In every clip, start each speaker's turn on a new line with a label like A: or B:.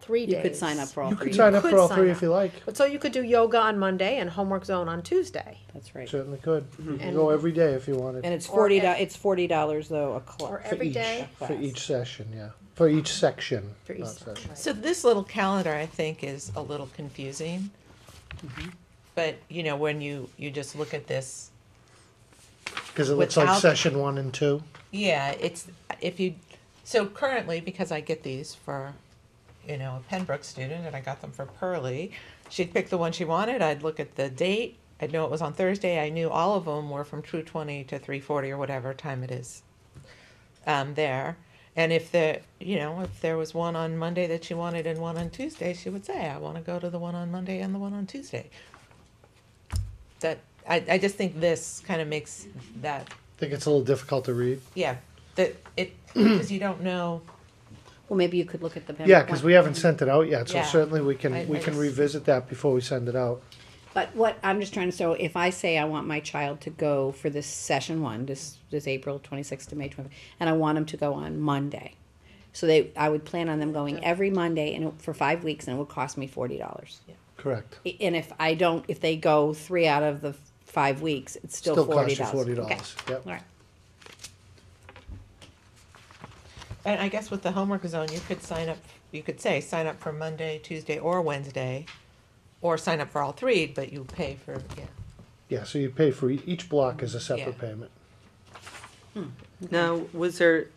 A: three days.
B: You could sign up for all
C: You
B: three.
C: could sign up
A: could
C: for all
A: sign
C: three
A: up.
C: if you like.
A: But so you could do yoga on Monday and homework zone on Tuesday.
B: That's right.
C: Certainly could. You could
A: And-
C: go every day if you wanted.
B: And it's
A: Or
B: forty, do-
A: ev-
B: it's forty dollars though, a
A: Or
B: class.
C: for
A: every
C: each,
A: day?
C: For each session, yeah. For each section.
A: For each
C: not
A: section,
C: session.
D: So this little calendar, I think, is a little confusing. But, you know, when you, you just look at this,
C: Because it looks like
D: Without-
C: session one and two.
D: yeah, it's, if you, so currently, because I get these for, you know, a Pembroke student, and I got them for Pearlie, she'd pick the one she wanted, I'd look at the date, I'd know it was on Thursday, I knew all of them were from two twenty to three forty or whatever time it is um, there. And if the, you know, if there was one on Monday that she wanted and one on Tuesday, she would say, I want to go to the one on Monday and the one on Tuesday. That, I, I just think this kind of makes that,
C: I think it's a little difficult to read.
D: yeah, that it, because you don't know,
B: Well, maybe you could look at the.
C: Yeah, because
B: one.
C: we haven't sent it out yet, so
D: Yeah.
C: certainly we
D: I-
C: can, we
D: I
C: can
D: just-
C: revisit that before we send it out.
B: But what, I'm just trying to, so if I say I want my child to go for this session one, this, this April twenty-sixth to May twenty, and I want them to go on Monday. So they, I would plan on them going every Monday and it- for five weeks and it would cost me forty dollars.
C: Correct.
B: And if I don't, if they go three out of the five weeks, it's still
C: Still
B: forty
C: costs you
B: dollars.
C: forty dollars. Yep.
B: Alright,
D: and I guess with the homework zone, you could sign up, you could say, sign up for Monday, Tuesday, or Wednesday, or sign up for all three, but you pay for, yeah.
C: Yeah, so you pay for, e- each block is a separate
D: Yeah.
C: payment.
E: Now, was there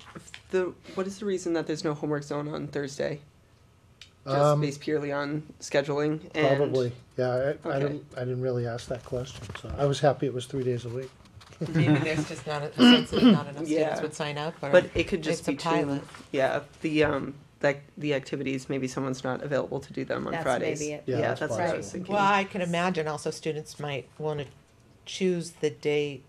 E: the what is the reason that there's no homework zone on Thursday? Just
C: Um,
E: based purely on scheduling and
C: Probably, yeah, I, I
E: Okay.
C: didn't, I didn't really ask that question, so I was happy it was three days a week.
D: Maybe there's just not, a sense that not enough students
E: Yeah.
D: would sign up, or.
E: But it could just
D: It's a
E: be too-
D: pilot.
E: Yeah, the um like the activities maybe someone's not available to do them on
B: That's
E: Fridays.
B: maybe it.
C: Yeah,
E: Yeah,
C: that's
E: that's, what I was
C: possible.
E: thinking.
D: Well, I can imagine also students might want to choose the day.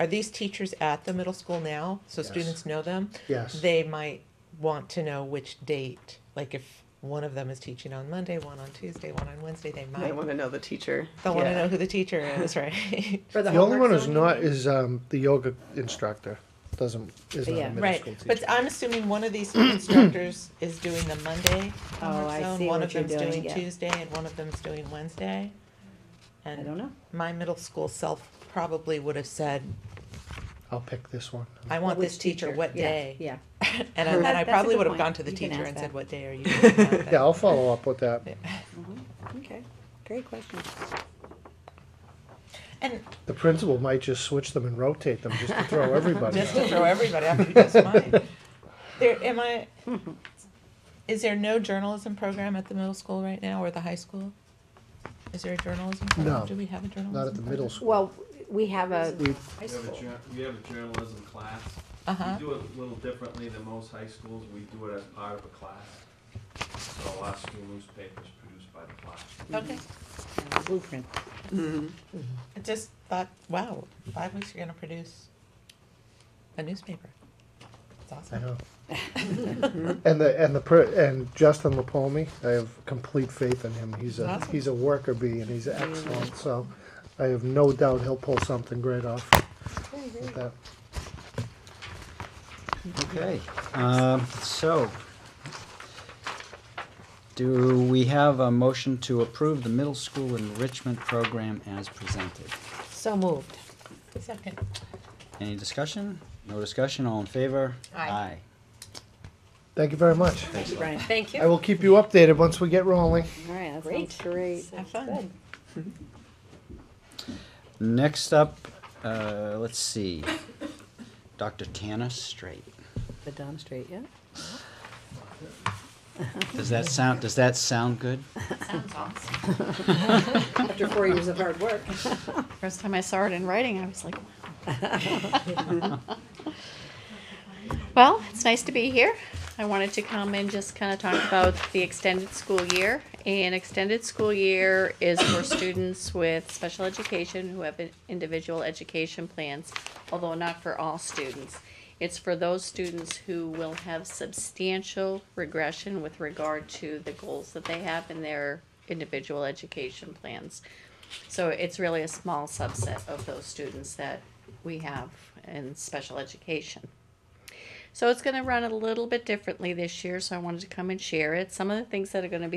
D: Are these teachers at the middle school now? So
C: Yes.
D: students know them?
C: Yes.
D: They might want to know which date, like if one of them is teaching on Monday, one on Tuesday, one on Wednesday, they
E: I
D: might.
E: want to know the teacher.
D: They'll want to
E: Yeah.
D: know who the teacher is, right?
A: For
C: The only
A: homework
C: one who's
A: zone,
C: not is, um, the yoga instructor, doesn't, is not
B: Yeah.
C: a middle
D: Right,
C: school teacher.
D: but I'm assuming one of these instructors is doing the Monday
B: Oh, I
D: homework
B: see
D: zone, one
B: what
D: of
B: you're
D: them's
B: doing,
D: doing
B: yeah.
D: Tuesday, and one of them's doing Wednesday.
B: I
D: And
B: don't know.
D: my middle school self probably would have said,
C: I'll pick this one.
D: I want
B: Which
D: this teacher, what
B: Yeah,
D: day?
B: Yeah,
D: And
B: That-
D: I, and I
B: that's a
D: probably
B: good
D: would have
B: point.
D: gone to the
B: You can
D: teacher
B: ask
D: and said,
B: that.
D: what day are you? doing that?"
C: Yeah, I'll follow up with that.
B: okay, great question.
D: And
C: The principal might just switch them and rotate them just to throw everybody
D: just
C: out.
D: to throw everybody after you just mine. There, am I, is there no journalism program at the middle school right now or the high school? Is there a journalism program?
C: No.
D: Do we have a journalism?
C: Not at the middle
D: program?
C: school.
B: Well, we have a,
C: We,
A: high
F: We have a,
A: school.
F: jour- we have a journalism class.
D: Uh-huh.
F: We do it a little differently than most high schools. We do it as part of a class. So our school newspaper is produced by the class.
D: Uh-huh. Okay. Mm-hmm.
B: blueprint.
D: I just thought, wow, five weeks you're going to produce a newspaper. It's
C: I
D: awesome.
C: know. and the and the per, and Justin Lapomi, I have complete faith in him. He's a
D: Awesome.
C: he's a worker bee and he's excellent. So I have no doubt he'll pull something great off with that.
G: Okay, um, so, do we have a motion to approve the middle school enrichment program as presented?
B: So moved.
D: Second.
G: Any discussion? No discussion, all in favor?
D: Aye.
C: Thank you very much.
B: Thank you, Brian. Thank
C: I will keep you updated once we get rolling.
B: All right, that sounds great.
D: Have fun.
G: Next up, uh, let's see, Dr. Tana Straight.
B: The Dom Street, yeah?
G: Does that sound, does that sound good?
H: Sounds awesome.
B: After four years of hard work.
H: First time I saw it in writing, I was like, wow. Well, it's nice to be here. I wanted to come and just kind of talk about the extended school year. And extended school year is for students with special education who have individual education plans, although not for all students. It's for those students who will have substantial regression with regard to the goals that they have in their individual education plans. So it's really a small subset of those students that we have in special education. So it's gonna run a little bit differently this year, so I wanted to come and share it. Some of the things that are gonna be